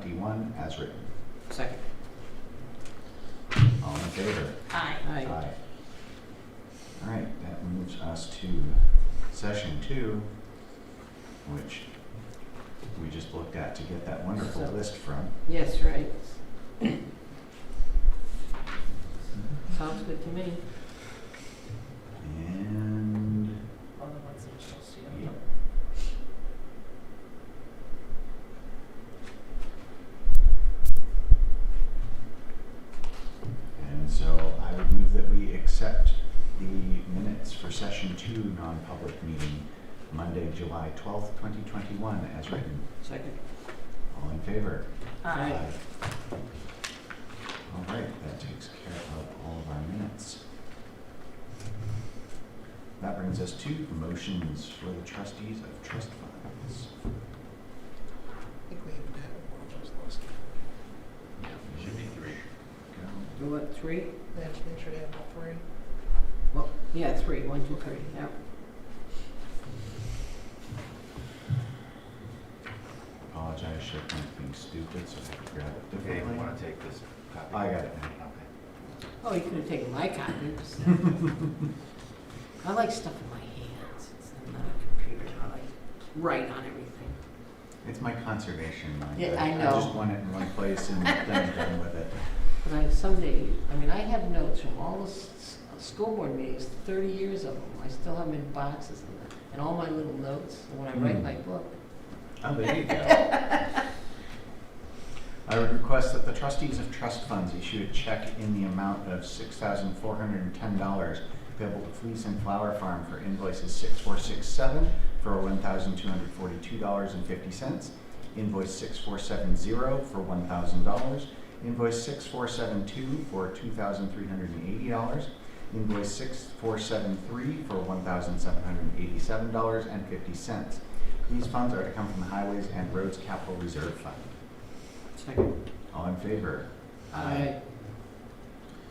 twenty-one as written. Second. All in favor? Aye. Aye. All right, that moves us to session two, which we just looked at to get that wonderful So- list from. Yes, right. Sounds good to me. And, All the ones that she'll see. yep. And so I would move that we accept the minutes for session two, non-public meeting, Monday, July twelfth, twenty twenty-one, as written. Second. All in favor? Aye. All right, that takes care of all of our minutes. That brings us to motions for the trustees of trust funds. I think we even had one of those last year. Yeah, should be three. Go. You want three? They have to make sure they have all three. Well, yeah, three. One, two, three. Yeah. Apologize, should have been stupid, so I had to grab it Okay, differently. you want to take this copy? I got it now. Okay. Oh, you could have taken my copies. I like stuff in my hands. It's not a computer. I like to write on everything. It's my conservation mind. Yeah, I I just know. want it in one place and then I'm done with it. But I someday, I mean, I have notes from all the s- s- school board meetings, thirty years of them. I still have them in boxes and, and all my little notes when I write Mm. my book. Oh, there you go. I would request that the trustees of trust funds issue a check in the amount of six thousand four hundred and ten dollars payable to Fleece and Flower Farm for invoices six four six seven for one thousand two hundred forty-two dollars and fifty cents, invoice six four seven zero for one thousand dollars, invoice six four seven two for two thousand three hundred and eighty dollars, invoice six four seven three for one thousand seven hundred and eighty-seven dollars and fifty cents. These funds are to come from the Highways and Roads Capital Reserve Fund. Second. All in favor? Aye.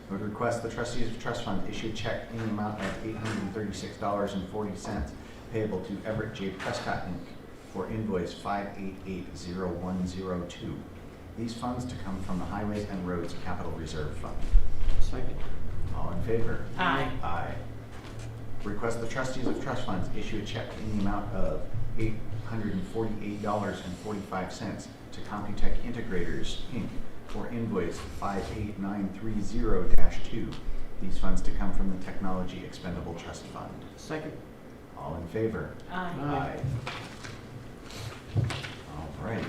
I Would request the trustees of trust fund issue a check in the amount of eight hundred and thirty-six dollars and forty cents payable to Everett J. Prescott Inc. for invoice five eight eight zero one zero two. These funds to come from the Highways and Roads Capital Reserve Fund. Second. All in favor? Aye. Aye. Request the trustees of trust funds issue a check in the amount of eight hundred and forty-eight dollars and forty-five cents to Computech Integrators, Inc. for invoice five eight nine three zero two. These funds to come from the Technology Expendable Trust Fund. Second. All in favor? Aye. Aye. All right.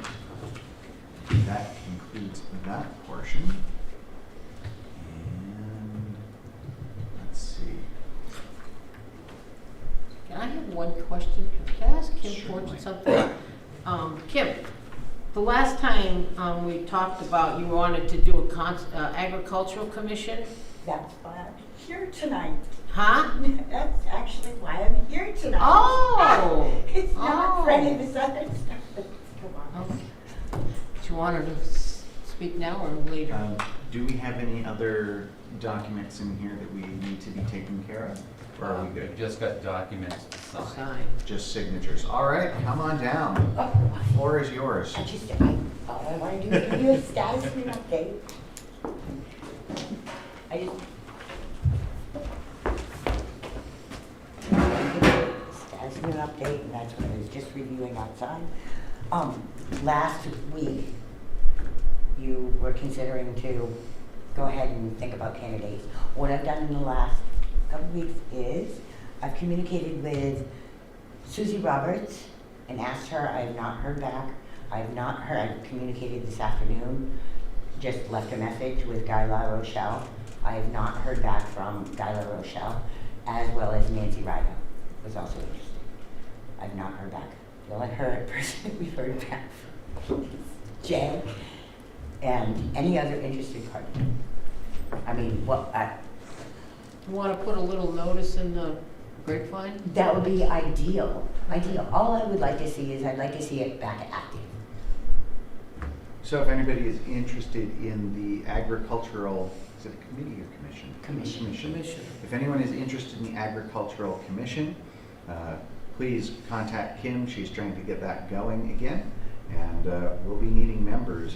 That concludes that portion. And, let's see. Can I have one question? Can I ask Kim Certainly. Fortune something? Um, Kim, the last time, um, we talked about you wanted to do a con, uh, agricultural commission, That's why I'm uh, here tonight. huh? That's actually why I'm here tonight. Oh! It's not for any of Oh. this other stuff that's going on. Okay. Do you want her to s- speak now or later? Um, Do we have any other documents in here that we need to be taken care of? Or are we Um, good? we've Just got documents to sign. Sign. Just signatures. All right, come on down. Oh, Floor is yours. I just, I, all I want to do is give you a status and an update. I just. Status and an update, and that's what I was just reviewing outside. Um, last week, you were considering to go ahead and think about candidates. What I've done in the last couple of weeks is, I've communicated with Susie Roberts and asked her, I have not heard back. I have not heard, I communicated this afternoon, just left a message with Guy La Rochelle. I have not heard back from Guy La Rochelle, as well as Nancy Ryder was also interested. I've not heard back. The only her person we've heard back from is Jay and any other interested party. I mean, what, uh, I, You wanna put a little notice in the grapevine? That would be ideal, ideal. All I would like to see is I'd like to see it back active. So if anybody is interested in the agricultural, is it a committee or commission? Commission. Commission. If anyone is interested in the agricultural commission, uh, please contact Kim. She's trying to get that going again. And uh, we'll be needing members